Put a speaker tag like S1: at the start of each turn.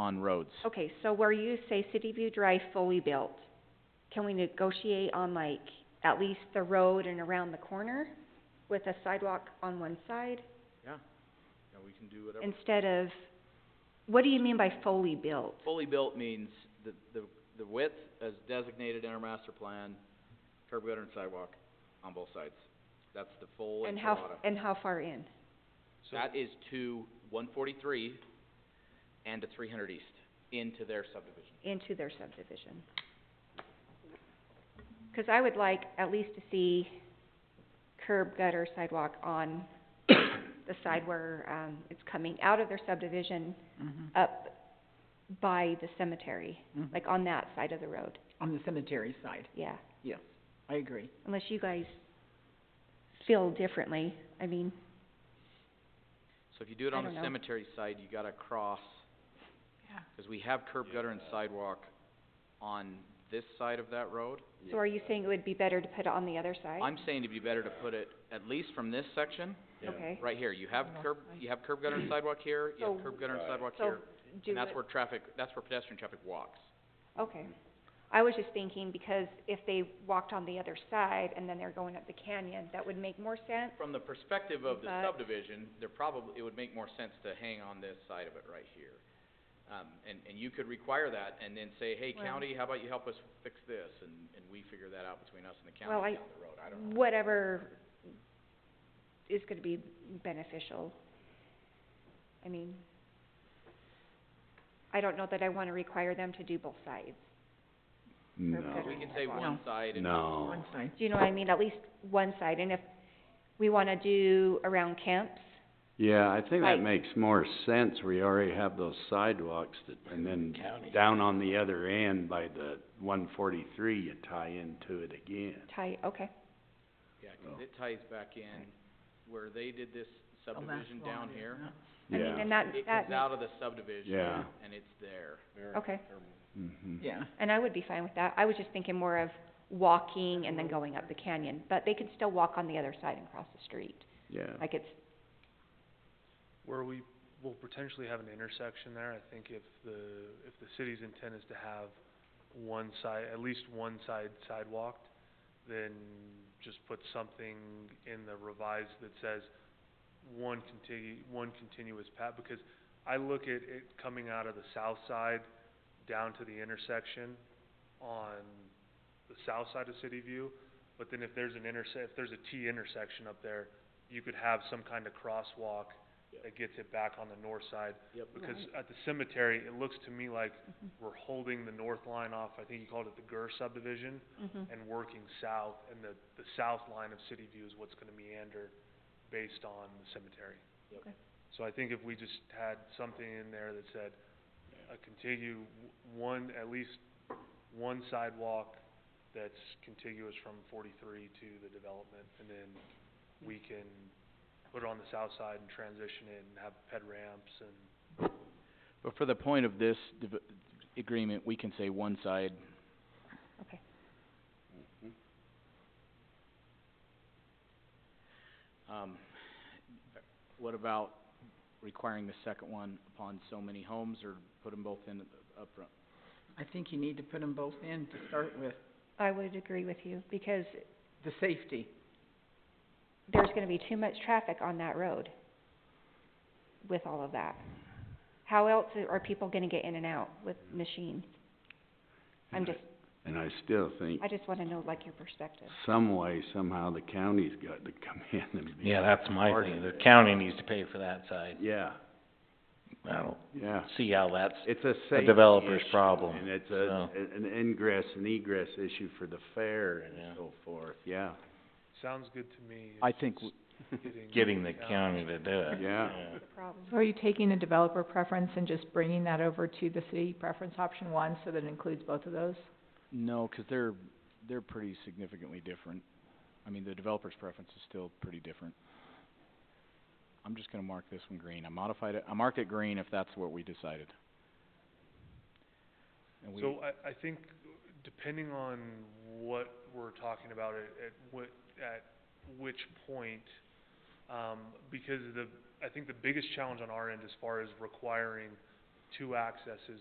S1: on roads.
S2: Okay, so where you say City View Drive fully built, can we negotiate on like at least the road and around the corner with a sidewalk on one side
S1: Yeah, yeah, we can do whatever.
S2: instead of, what do you mean by fully built?
S1: Fully built means the, the, the width as designated in our master plan, curb gutter and sidewalk on both sides. That's the full
S2: And how,
S1: enchilada.
S2: f- and how far in?
S1: That is to one forty-three and to three hundred east into their subdivision.
S2: into their subdivision. 'Cause I would like at least to see curb gutter sidewalk on the side where, um, it's coming out of their subdivision
S3: Mm-hmm,
S2: up by the cemetery, like on that side of the road,
S3: On the cemetery side,
S2: yeah.
S3: yes, I agree.
S2: Unless you guys feel differently, I mean,
S1: So if you do it
S2: I
S1: on the
S2: don't know.
S1: cemetery side, you gotta cross,
S3: Yeah.
S1: cause we have curb gutter and sidewalk on this side of that road.
S2: so are you saying it would be better to put it on the other side?
S1: I'm saying it'd be better to put it, at least from this section,
S2: Okay,
S1: right here, you have curb, you have curb gutter and sidewalk here, you
S2: So-
S1: have curb gutter and sidewalk
S2: so
S1: here.
S2: do
S1: And that's
S2: it-
S1: where traffic, that's where pedestrian traffic walks.
S2: Okay. I was just thinking because if they walked on the other side and then they're going up the canyon, that would make more sense.
S1: From the perspective of the
S2: But-
S1: subdivision, there probably, it would make more sense to hang on this side of it right here. Um, and, and you could require that and then say, hey,
S2: Well-
S1: county, how about you help us fix this? And, and we figure that out between us and the
S2: Well,
S1: county
S2: I-
S1: down the road, I don't know.
S2: Whatever is gonna be beneficial. I mean, I don't know that I wanna require them to do both sides.
S4: No,
S2: better.
S1: We can say
S2: No.
S1: one side and.
S4: no,
S3: One side,
S2: Do you know what I mean? At least one side. And if we wanna do around camps,
S4: yeah, I think
S2: Right.
S4: that makes more sense, we already have those sidewalks that, and then down on the other end by the one forty-three, you tie into it again.
S2: tie, okay,
S1: Yeah, 'cause it ties back in where they did this
S3: the last
S1: subdivision down
S3: one,
S1: here.
S3: yeah.
S2: I mean,
S4: Yeah,
S2: and that,
S1: It
S2: that
S1: comes out of the subdivision.
S4: Yeah.
S1: And it's there.
S2: makes- okay.
S4: mhm.
S3: Yeah,
S2: And I would be fine with that. I was just thinking more of walking and then going up the canyon, but they could still walk on the other side and cross the street.
S4: Yeah.
S2: Like it's,
S5: Where we will potentially have an intersection there, I think if the, if the city's intent is to have one side, at least one side sidewalked, then just put something in the revised that says one contigu- one continuous path, because I look at it coming out of the south side down to the intersection on the south side of City View, but then if there's an interse- if there's a T intersection up there, you could have some kind of crosswalk that gets it back on the north side.
S1: Yep.
S5: Because at the cemetery, it looks to me like we're holding the north line off, I think you called it the Gurr subdivision,
S2: mhm,
S5: and working south, and the, the south line of City View is what's gonna meander based on the cemetery.
S1: Yep.
S2: Okay.
S5: So I think if we just had something in there that said, a continue, w- one, at least one sidewalk that's contiguous from forty-three to the development, and then we can put it on the south side and transition it and have ped ramps and
S1: But for the point of this div- agreement, we can say one side.
S2: okay.
S1: Um, what about requiring the second one upon so many homes or put them both in upfront?
S3: I think you need to put them both in to start with,
S2: I would agree with you because
S3: the safety.
S2: there's gonna be too much traffic on that road with all of that. How else are people gonna get in and out with machines? I'm
S4: And I-
S2: just,
S4: And I still think
S2: I just wanna know like your perspective.
S4: some way, somehow, the county's got to come in and be.
S6: Yeah, that's my
S4: part
S6: thing,
S4: of
S6: the
S4: it.
S6: county needs to pay for that side.
S4: Yeah,
S6: I don't
S4: yeah,
S6: see how that's,
S4: it's a
S6: A
S4: safety
S6: developer's
S4: issue,
S6: problem,
S4: And it's a, an ingress and egress issue for the fair
S6: Yeah.
S4: and so forth, yeah,
S5: sounds good to me.
S1: I
S5: It's
S1: think
S5: just getting
S6: getting the
S5: down.
S6: county to do it,
S4: Yeah.
S2: The problem.
S7: So are you taking the developer preference and just bringing that over to the city preference option one, so that it includes both of those?
S1: No, 'cause they're, they're pretty significantly different. I mean, the developer's preference is still pretty different. I'm just gonna mark this one green. I modified it, I mark it green if that's what we decided. And we,
S5: So I, I think depending on what we're talking about, at, at what, at which point, um, because the, I think the biggest challenge on our end as far as requiring two accesses